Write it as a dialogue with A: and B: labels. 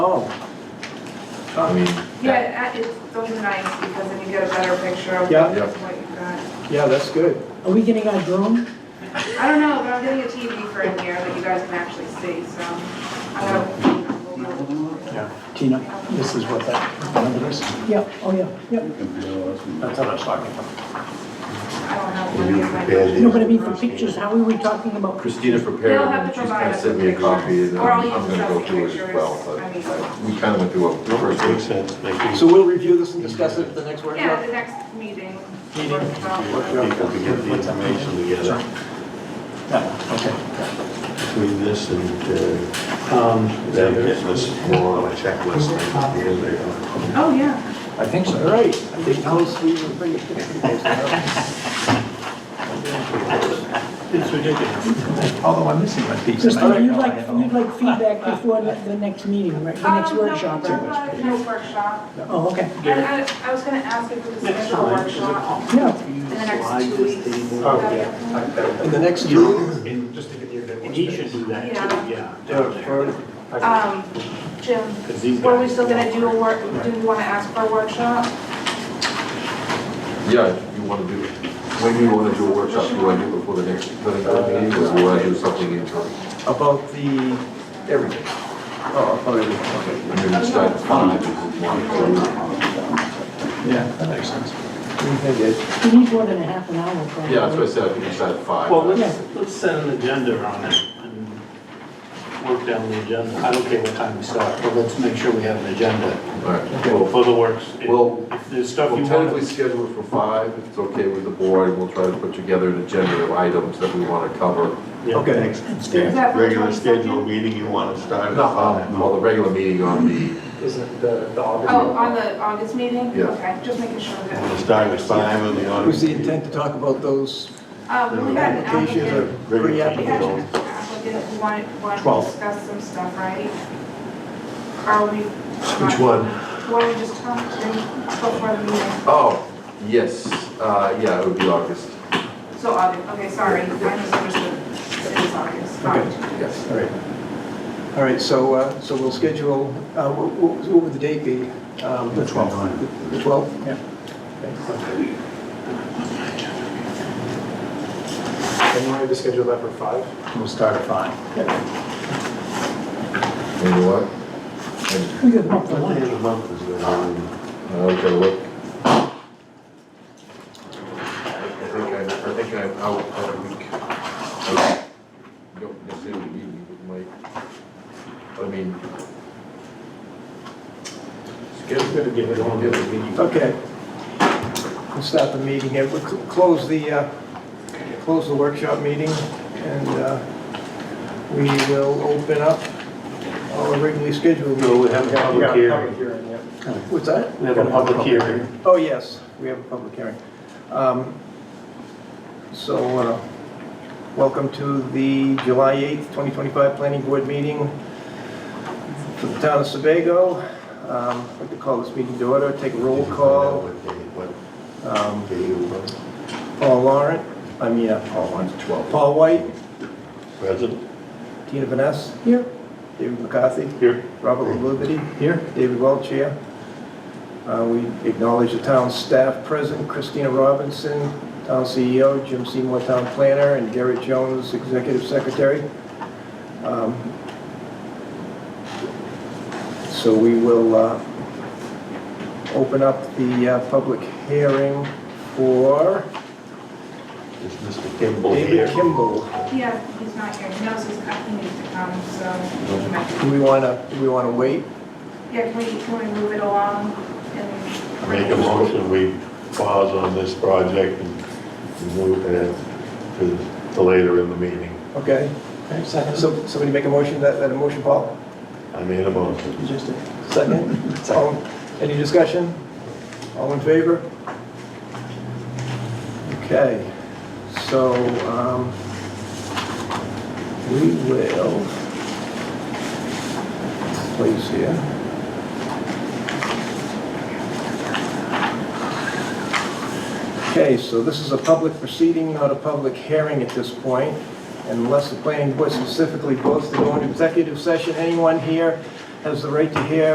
A: Oh.
B: I mean,
C: Yeah, it- it- those are nice because then you get a better picture of
A: Yeah.
B: Yeah.
C: what you've got.
A: Yeah, that's good.
D: Are we getting our drone?
C: I don't know, but I'm getting a TV for in here that you guys can actually see, so. I don't know.
E: Yeah, Tina, this is what that number is.
D: Yeah, oh yeah, yeah.
E: That's what I was talking about.
C: I don't know.
B: Will you prepare these?
D: No, but I mean for pictures, how are we talking about?
B: Christina prepared
C: They'll have
B: them,
C: to
B: she's
C: provide
B: gonna
C: us
B: send
C: with
B: me a copy,
C: pictures,
B: and then
C: or
B: I'm
C: I'll use
B: gonna go
C: just
B: through it
C: pictures.
B: as well, but
C: I mean-
B: uh, we kinda went through a first
E: Makes
B: week.
E: sense, thank you.
A: So we'll review this and discuss it at the next
C: Yeah,
A: workshop?
C: the next meeting.
E: Meeting.
C: workshop.
E: People to get the information together
A: Yeah, okay.
E: between this and,
F: um,
E: uh, them getting this more on a checklist. Here they are.
C: Oh, yeah.
E: I think
A: All right. I think Alice, we will bring a picture of those now.
E: It's ridiculous. Although I'm missing my piece. and I
D: Christina,
E: don't
D: you'd
E: know, I
D: like,
E: don't know.
D: you'd like feedback before the the next meeting, right, the next
C: Um, no,
D: workshop,
C: no,
D: right?
C: uh, No workshop.
D: Oh, okay,
C: And I, I was gonna ask if we could
E: Next
C: schedule a
E: time, is it
C: workshop
D: yeah.
C: in the next two weeks.
A: Oh, And the next two?
E: And he should do that too,
C: Yeah.
E: yeah. down there.
A: Or-
C: Um, Jim,
E: 'Cause these
C: Were we
E: guys-
C: still gonna do a work, do you wanna ask for a workshop?
B: Yeah, you wanna do, when do you wanna do a workshop, do I do before the next, the next meeting, or do I do something in time?
A: About the, everything. Oh, about everything,
B: I mean, we start at five, if you want.
E: Yeah, that makes sense.
A: okay. I did.
D: We need more than a half an hour probably.
B: Yeah, that's what I said, I think we start at five.
E: Well, let's,
D: Yeah.
E: let's set an agenda on it and work down the agenda. I don't care what time we start, but let's make sure we have an agenda
B: All right,
A: Okay.
B: well,
E: for the works. If-
B: Well,
E: If there's stuff you
B: We'll
E: want
B: tentatively
E: to.
B: schedule it for five, if it's okay with the board, we'll try to put together an agenda of items that we want to cover.
E: Yeah.
A: Okay.
C: Is
D: That's good.
C: that for the
F: regular
C: 22nd?
F: scheduled meeting, you want to start at five?
B: Well, Um, the regular meeting on the,
A: Isn't the, the
C: Oh,
A: August?
C: on the August meeting?
B: Yeah.
C: Okay, just making sure
F: We'll
C: that,
F: start at five and the
A: It
F: audience.
A: was the intent to talk about those
C: um, we had an
A: applications
C: applicant,
A: or
F: Regular
C: we had an
A: pre-applications?
C: applicant who wanted, wanted to
A: Twelve.
C: discuss some stuff, right? Are we?
B: Which one?
C: What we just talked to before the meeting,
B: oh, yes, uh, yeah, it would be August,
C: so August, okay, sorry, I misunderstood, it is August, fine.
B: yes.
A: All right. All right, so, uh, so we'll schedule, uh, what, what what would the date be? Um, The 12th. The 12th? Yeah. And you wanted to schedule that for 5?
E: We'll start at five.
B: And you what?
D: We could bump the
E: What day
D: line.
E: of the month is it on?
B: I'll take a look. I think I, I think I'm out that week. I Don't necessarily meeting, but might, I mean.
E: We're gonna give it all the other meeting.
A: Okay. We'll start the meeting here. We'll cl- close the, uh, close the workshop meeting and uh, we will open up our regularly scheduled meeting.
E: No, we have a public
A: Yeah,
E: hearing.
A: hearing, yeah. What's that?
E: We have a public hearing.
A: Oh, yes, we have a public hearing. Um, So, uh, welcome to the July 8th, 2025 Planning Board meeting for the town of Sebago. Um, I'd like to call this meeting to order, take a roll call.
F: What day, what
A: Um,
F: day you want?
A: Paul Laurent, I mean, uh, Paul Laurent,
B: Oh, Twelve.
A: Paul White,
E: Present.
A: Tina Vaness here, David McCarthy,
E: Here.
A: Robert Liberty here, David Welch here. Uh, We acknowledge the town staff present, Christina Robinson, town CEO, Jim Seymour, town planner, and Garrett Jones, executive secretary. Um, So we will uh, open up the uh, public hearing for
F: Is Mr. Kimball here?
A: David Kimball.
C: Yeah, he's not here, he knows he's, he needs to come, so he might be
A: Do we want to, do we want to wait?
C: Yeah, can we, can we move it along and?
F: Make a motion, we pause on this project and move it to, to later in the meeting.
A: Okay, so somebody make a motion, that, that a motion, Paul?
F: I made a motion.
A: Second? All- Any discussion? All in favor? Okay, so, um, we will, please here. Okay, so this is a public proceeding, not a public hearing at this point, unless the planning board specifically votes to go into executive session. Anyone here has the right to hear